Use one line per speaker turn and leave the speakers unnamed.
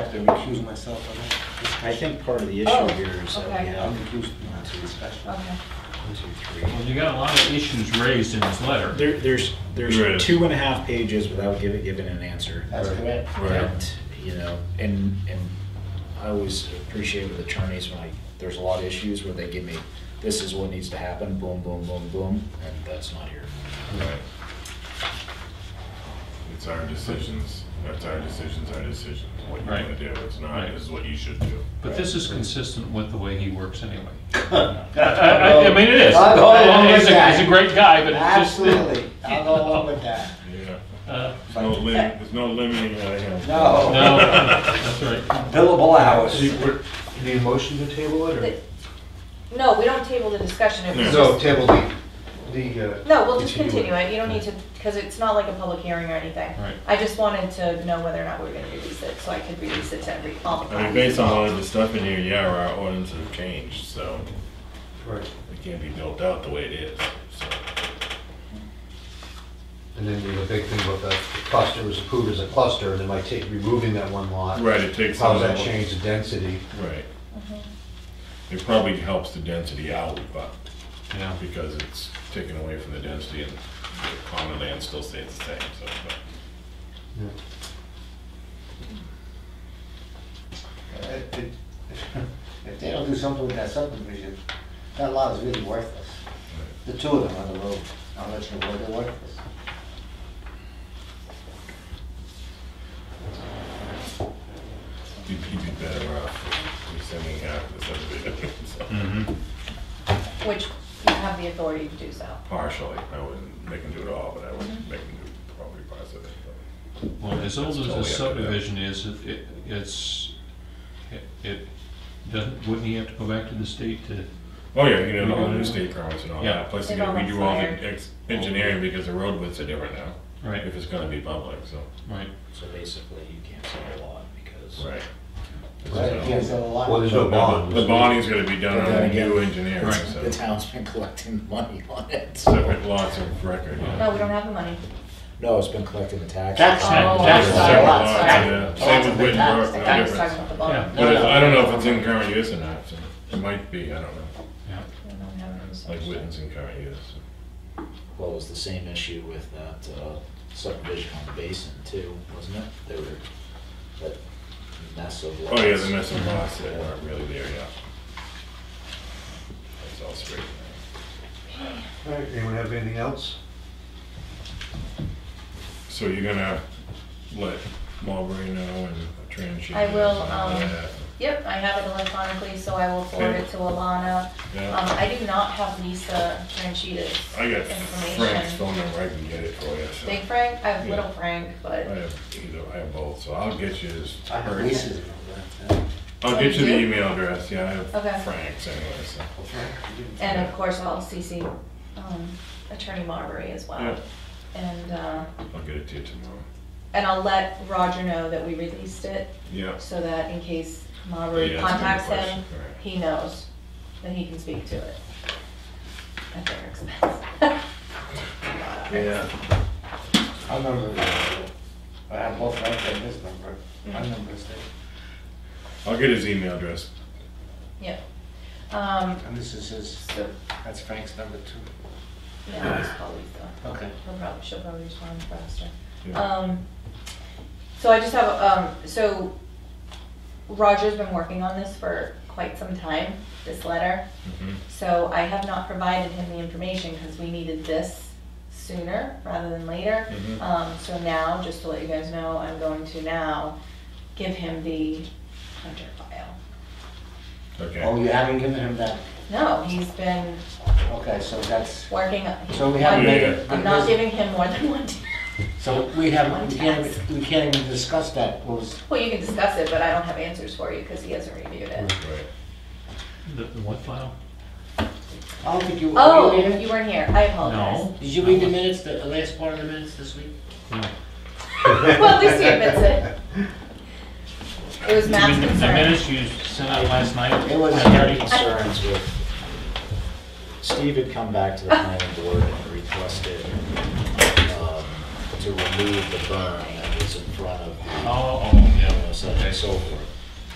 have to recuse myself on that.
I think part of the
Oh,
issue here is that we
okay.
I'm
have
recused not to respect.
Okay.
one, two, three.
Well, you got a lot of issues raised in this letter.
There, there's,
Right.
there's two and a half pages without giving, giving an answer.
That's correct.
Right. You know, and, and I always appreciate with attorneys when I, there's a lot of issues where they give me, this is what needs to happen, boom, boom, boom, boom, and that's not here.
Right. It's our decisions, that's our decisions, our decisions, what you
Right.
wanna do, it's not,
Right.
this is what you should do.
But this is consistent with the way he works anyway. I, I- I mean, it is.
I'll go along with
He's a-
that.
He's a great guy, but it's just.
Absolutely, I'll go along with that.
Yeah.
Uh,
There's no lim, there's no limiting out of him.
No.
No, that's right.
Billable hours.
So you, we're- you need a motion to table it, or?
No, we don't table the discussion. It was
No,
just-
table the, the, uh.
No, we'll just
Continue it.
continue it. You don't need to, because it's not like a public hearing or anything.
Right.
I just wanted to know whether or not we were going to release it, so I could release it to every, all the
I mean,
clients.
based on all of the stuff in here, yeah, our ordinances have changed, so
Right.
it can't be built out the way it is, so.
And then you have a big thing about the cluster was approved as a cluster, and then by take, removing that one lot.
Right, it takes.
How
some
does
of
that
the-
change the density?
Right. It probably helps the density out, but,
Yeah.
because it's taken away from the density and the common land still stays the same, so, but.
Yeah.
If if- if they don't do something with that subdivision, that lot is really worthless. The two of them on the road, I'm not sure why they're worthless.
You'd you'd be better off rescinding half the subdivision, so.
Mhm.
Which you have the authority to do so.
Partially, I wouldn't make them do it all, but I would make them do probably parts of it. but-
Well, as old as the
Totally up to them.
subdivision is, it- it, it's, it- it, doesn't, wouldn't he have to go back to the state to?
Oh, yeah, you know, all the new state permits and all
Yeah.
that, plus
They've
you gotta
all
redo all
expired.
the ex- engineering because the road widths are different now,
Right,
if it's gonna be public, so.
right.
So basically, you can't sell a lot because.
Right.
Right, can't sell a lot.
Well, there's no bond.
The bonding's gonna be done on the
Yeah.
new engineering,
Right.
The
so.
town's been collecting money on it.
Separate lots of record. yeah.
No, we don't have the money.
No, it's been collecting the taxes.
Tax,
Oh.
tax,
Separate
sorry,
lots,
lots, sorry.
yeah.
Lots
Same
of
with
big
Witten
tax,
Brook, no
I
tax.
was talking about the
Yeah.
bond.
But it's- I don't know if it's in current use or not, so it might be, I don't know,
Yeah.
We don't have it, so-
like Witten's in current use. so.
Well, it was the same issue with that uh, subdivision on the basin too, wasn't it? There were that mess of lots.
Oh, yeah, the missing lots that weren't really there, yeah. That's all straight.
All right, anyone have anything else?
So you're gonna let Marbury know and Transhy?
I will,
and all
um,
that?
Yep, I have it electronically, so I will forward
Okay.
it to Alana. Um,
Yeah,
I do not have Lisa Franchida's
I got Frank's
information.
phone number, I can get it for you, so.
Big Frank, I have
Yeah.
Little Frank,
I
but.
have either, I have both, so I'll get you his,
I have
her-
leases and all that.
I'll get you the
Oh, you do?
email address, yeah, I
Okay.
have Frank's anyway, so.
And of course, I'll CC um, Attorney Marbury as well.
Yeah.
And, uh,
I'll get it to you tomorrow.
and I'll let Roger know that we released it,
Yeah.
so that in case Marbury
Yeah, that's a good
contacts him,
question, right.
he knows that he can speak to it. At their expense.
Yeah.
I remember, the- I have both Frank and his number, my number is there,
I'll get his email address.
Yep. Um,
and this is his,
so,
that's Frank's number two.
yeah, I'll just call Lisa.
Okay.
He'll probably, she'll probably respond faster.
Yeah.
Um, so I just have, um, so Roger's been working on this for quite some time, this letter.
Mhm.
So I have not provided him the information because we needed this sooner rather than later.
Mm-hmm.
Mhm.
Um, so now, just to let you guys know, I'm going to now give him the Hunter file.
Oh,
Okay.
you haven't given him that,
No, he's been
okay, so that's,
working.
so we haven't made it.
I'm not giving him more than one.
So we haven't, we can't, we can't even discuss that, what was,
Well, you can discuss it, but I don't have answers for you because he hasn't reviewed it.
Right.
The, the what file?
I don't think you, were
Oh,
you reading
you
it?
weren't here. I apologize.
No.
Did you read the minutes, the last part of the minutes this week?
No.
Well, at least he admits it. It was
I
Matt's
mean, The the
concern.
minutes you sent out last night?
It was,
I had any concerns with, Steve had come back to the planning board and requested um, to remove the burn that was in front of the
Oh, oh, yeah.
uh, such and so forth.